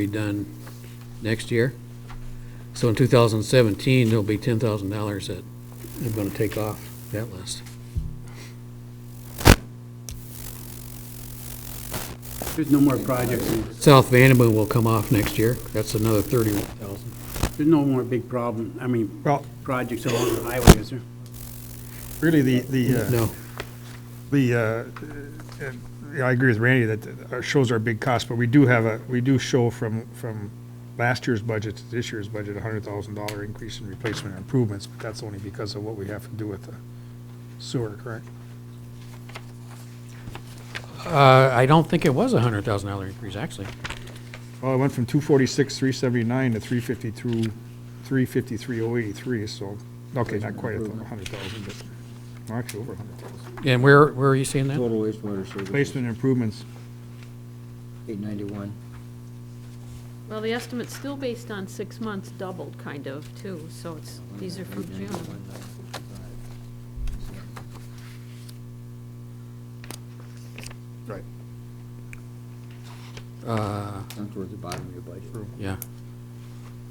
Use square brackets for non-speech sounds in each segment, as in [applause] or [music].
be done next year. So in 2017, there'll be $10,000 that they're going to take off that list. There's no more projects, in- South Vandenboe will come off next year. That's another 31,000. there's no more big problem, I mean, Well, projects along the highway, is there? really, the, the, uh, No, the, uh, uh, yeah, I agree with Randy that our shows are a big cost, but we do have a, we do show from, from last year's budget to this year's budget, a hundred thousand dollar increase in replacement and improvements, but that's only because of what we have to do with the sewer, correct? Uh, I don't think it was a $100,000 increase, actually. Well, it went from two forty-six, three seventy-nine to three fifty-two, three fifty-three, oh eighty-three, so, okay, not quite a hundred thousand, but, well, actually over a hundred thousand. And where, where are you seeing that? Total wastewater services, Replacement and improvements, eight ninety-one. Well, the estimate's still based on six months doubled, kind of, too, so it's, these are from June. right. Uh, Down towards the bottom of your budget, Yeah,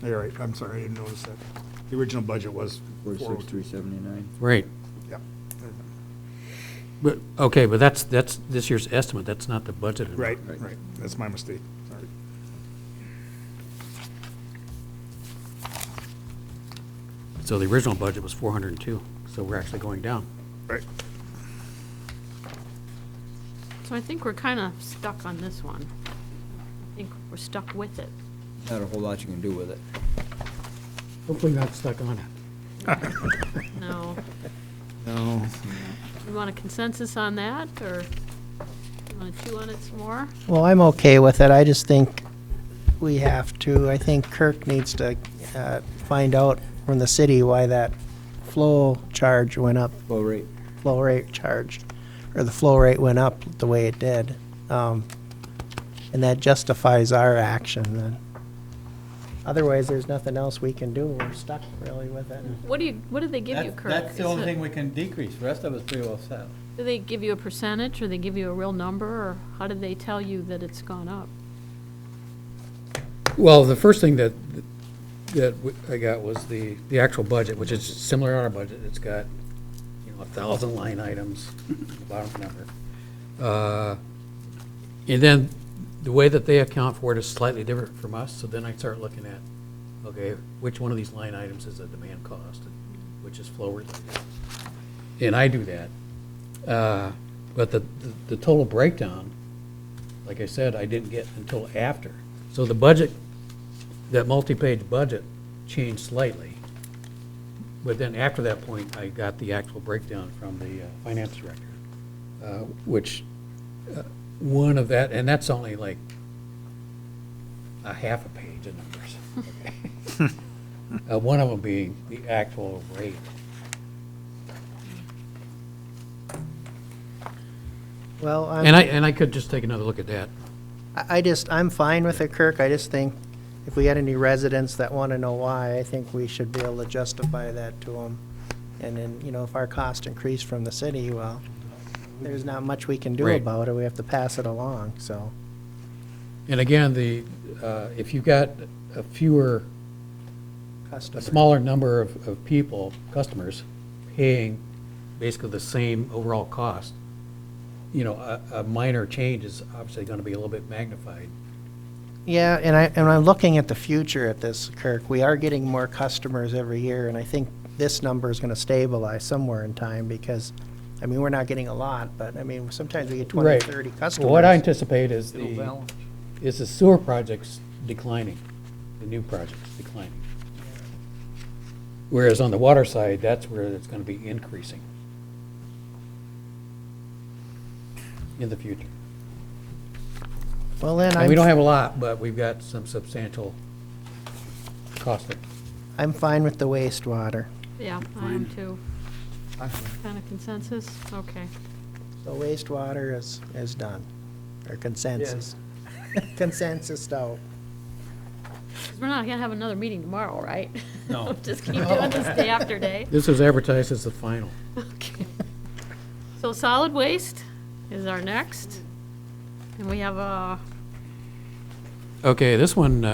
All right, I'm sorry, I didn't notice that. The original budget was forty-six, 402. three seventy-nine. right. Yep. But, okay, but that's, that's this year's estimate. That's not the budget. Right, right, that's my mistake, sorry. So the original budget was 402, so we're actually going down. Right. So I think we're kind of stuck on this one. I think we're stuck with it. Not a whole lot you can do with it. Hopefully not stuck on it. No, No. you want a consensus on that, or you want to chew on it some more? Well, I'm okay with it. I just think we have to, I think Kirk needs to uh, find out from the city why that flow charge went up, Flow rate, flow rate charge, or the flow rate went up the way it did. Um, And that justifies our action then. Otherwise, there's nothing else we can do. We're stuck really with it. What do you, what do they give you, That's- Kirk? That's the Is only it- thing we can decrease, the rest of it's pretty well set. Do they give you a percentage, or they give you a real number, or how did they tell you that it's gone up? Well, the first thing that, that w- I got was the, the actual budget, which is similar to our budget. It's got, you know, a thousand line items, bottom number. Uh, And then the way that they account for it is slightly different from us, so then I start looking at, okay, which one of these line items is a demand cost, which is flow related? And I do that. Uh, But the, the- the total breakdown, like I said, I didn't get until after. So the budget, that multi-page budget changed slightly. But then after that point, I got the actual breakdown from the uh, finance director, uh, which, uh, one of that, and that's only like a half a page of numbers. Uh, One of them being the actual rate. Well, I'm. And I, and I could just take another look at that. I I just, I'm fine with it, Kirk. I just think if we had any residents that want to know why, I think we should be able to justify that to them. And then, you know, if our cost increased from the city, well, there's not much we can do Right. about it. We have to pass it along, so. And again, the, uh, if you've got a fewer a customer. smaller number of, of people, customers, paying basically the same overall cost, you know, a, a minor change is obviously gonna be a little bit magnified. Yeah, and I, and I'm looking at the future at this, Kirk. We are getting more customers every year, and I think this number is going to stabilize somewhere in time because, I mean, we're not getting a lot, but I mean, sometimes we get 20, 30 customers. What I anticipate is It'll the, balance. is the sewer projects declining, the new projects declining. Whereas on the water side, that's where it's gonna be increasing in the future. Well, then I'm. And we don't have a lot, but we've got some substantial cost there. I'm fine with the wastewater. Yeah, I am too. Kind of consensus? Okay. The wastewater is, is done, or consensus. [laughs] Consensus out. 'Cause we're not gonna have another meeting tomorrow, right? Oh. No. Just keep doing this day after day. This was advertised as the final. Okay. So solid waste is our next, and we have a Okay, this one,